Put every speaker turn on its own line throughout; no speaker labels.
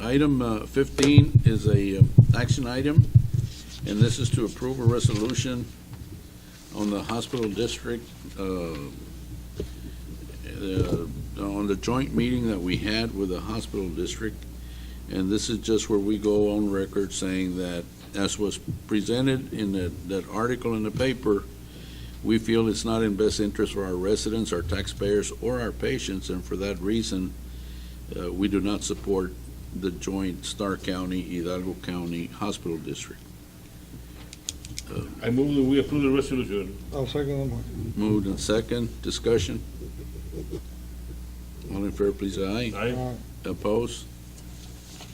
Item uh, 15 is a um, action item, and this is to approve a resolution on the hospital district, uh, uh, on the joint meeting that we had with the hospital district. And this is just where we go on record saying that, as was presented in that, that article in the paper, we feel it's not in best interest for our residents, our taxpayers, or our patients, and for that reason, uh, we do not support the joint Star County, Hidalgo County Hospital District.
I move that we approve the resolution.
I'll second the motion.
Moved and second, discussion? All in favor, please, aye.
Aye.
Aye.
Opposed?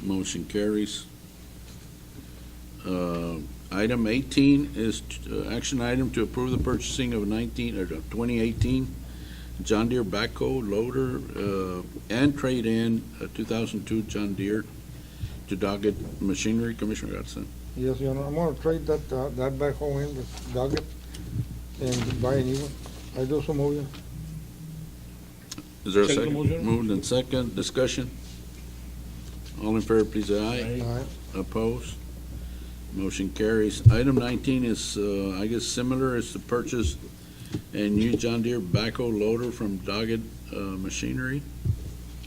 Motion carries. Uh, Item 18 is, uh, action item to approve the purchasing of 19, or of 2018 John Deere backhoe loader uh, and trade-in uh, 2002 John Deere to Doggett Machinery. Commissioner Garcia.
Yes, Your Honor, I'm gonna trade that, uh, that backhoe in with Doggett and buy a new one. I do so move, Your
Is there a
Second
second?
motion.
Moved and second, discussion? All in favor, please, aye.
Aye.
Honor.
Opposed? Motion carries. Item 19 is, uh, I guess, similar, is to purchase a new John Deere backhoe loader from Doggett uh, Machinery.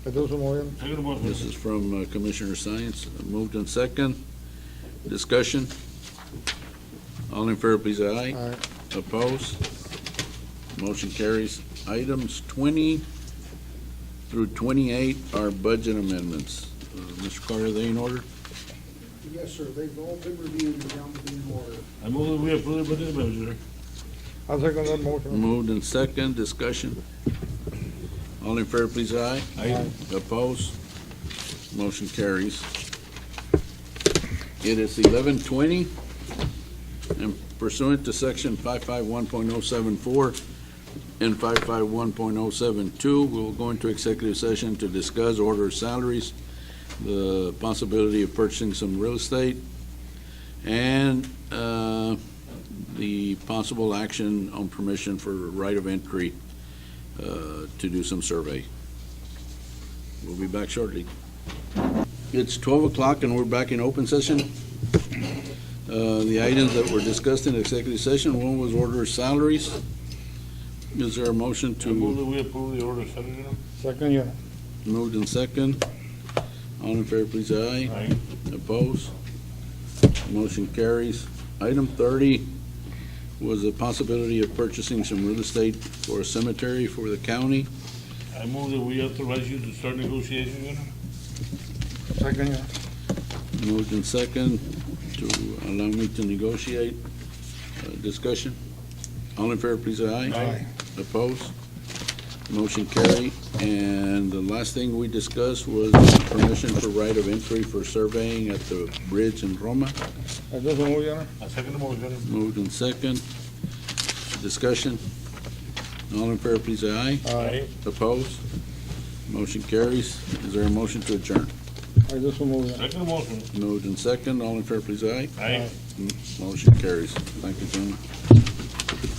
I do so move, Your Honor.
Second
This
motion.
is from uh, Commissioner Science. Moved in second. Discussion? All in favor, please, aye.
Aye.
Opposed? Motion carries. Items 20 through 28 are budget amendments. Uh, Mr. Carter, are they in order?
Yes, sir, they've all been reviewed and down to be in order.
I move that we approve the budget amendment.
I'll second that motion.
Moved in second, discussion. All in favor, please, aye.
Aye.
Opposed? Motion carries. It is eleven twenty, and pursuant to section five-five-one point oh-seven-four and five-five-one point oh-seven-two, we'll go into executive session to discuss order salaries, the possibility of purchasing some real estate, and, uh, the possible action on permission for right of entry uh, to do some survey. We'll be back shortly. It's 12 o'clock and we're back in open session. Uh, The items that were discussed in executive session, one was order salaries. Is there a motion
I move
to
that we approve the order of salary.
Second, Your Honor.
move in second? All in favor, please, aye.
Aye.
Opposed? Motion carries. Item 30 was the possibility of purchasing some real estate for a cemetery for the county.
I move that we authorize you to start negotiations. Your Honor.
Second, Your Honor.
Moved in second to allow me to negotiate. Uh, Discussion? All in favor, please, aye.
Aye.
Opposed? Motion carried. And the last thing we discussed was permission for right of entry for surveying at the bridge in Roma.
I do so move, Your Honor.
I second the motion.
Moved in second. Discussion? All in favor, please, aye.
Aye.
Opposed? Motion carries. Is there a motion to adjourn?
I do so move, Your Honor.
Second motion.
Moved in second. All in favor, please, aye.
Aye.
Motion carries. Thank you, gentlemen.